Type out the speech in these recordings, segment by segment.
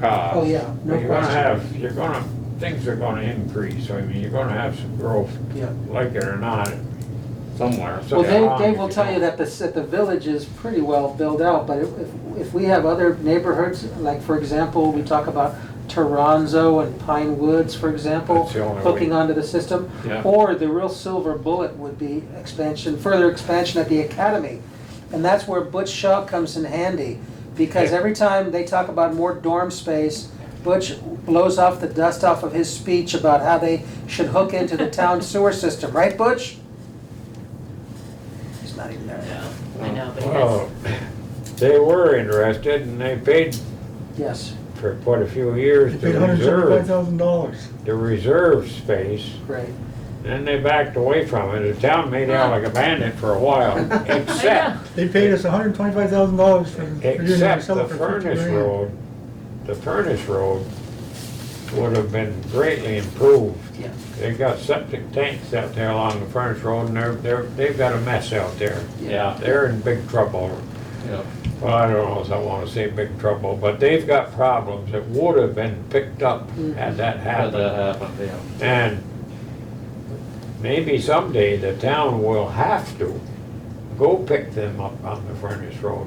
cost. Oh, yeah, no But you're gonna question. have, you're gonna, things are gonna increase, I mean, you're gonna have some growth, Yeah. like it or not, somewhere. so Well, long they, as they will tell you don't- that the, s- that the village is pretty well built out, but if, if- if we have other neighborhoods, like for example, we talk about Toronzo and Pine Woods, for example, That's the only way. hooking onto the system. Yeah. Or the real silver bullet would be expansion, further expansion at the academy. And that's where Butch Shaw comes in handy, because Yeah. every time they talk about more dorm space, Butch blows off the dust off of his speech about how they should hook into the town sewer system, right, Butch? He's not even there. No, I know, but Well, that's, They were interested and they paid Yes, for quite a few years They paid to hundred seventy-five reserve, thousand dollars. the reserve space, great. and they backed away from it. The town made out like a bandit for a while, except, They paid us hundred twenty-five thousand dollars for. for doing it. We except sell the it for fifty furnace grand. road. The furnace road would have been greatly improved. Yeah. They got septic tanks out there along the furnace road and they're, they're, they've got a mess out there. Yeah. They're in big trouble. Yeah, Well, I don't know if I wanna say big trouble, but they've got problems that would have been picked up Mm-hmm. had that had that happened. happen, yeah. And maybe someday the town will have to go pick them up on the furnace road.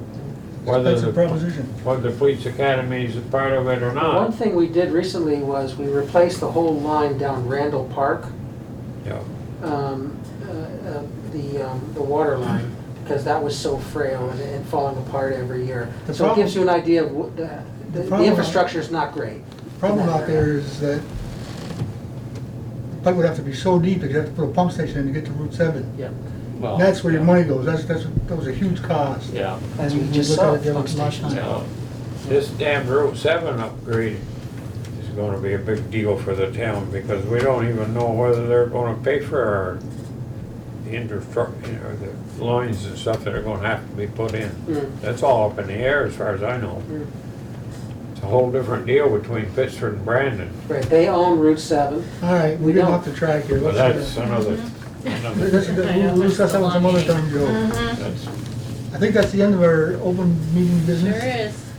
Whether That's a the, proposition. whether the police academy is a part of it or One not. thing we did recently was we replaced the whole line down Randall Park, Yeah. um, uh, uh, the, um, the water line, because that was so frail and, and falling apart every year. The So it gives problem- you an idea of what, the, The the- the problem- infrastructure's not great. Problem out there is that pipe would have to be so deep, that you'd have to put a pump station in to get to Route seven. Yeah, Oh, Well, That's where your yeah. money goes. That's, that's, that was a huge cost. Yeah, as we We just look saw, at it, there pump was lots of- stations. yeah, This damn Route seven upgrade is gonna be a big deal for the town because we don't even know whether they're gonna pay for our infrastructure, or the lines and stuff that are gonna have to be put in. Mm, That's all up in the air as far as I know. mm. It's a whole different deal between Pittsford and Brandon, Right, they own Route seven. All right, We we're getting don't. off the track here. but Let's, that's uh, another, let's- another, let's- uh, We'll we'll discuss that one some other time, Joe. Mhm. that's, I think that's the end of our open meeting sure business. is.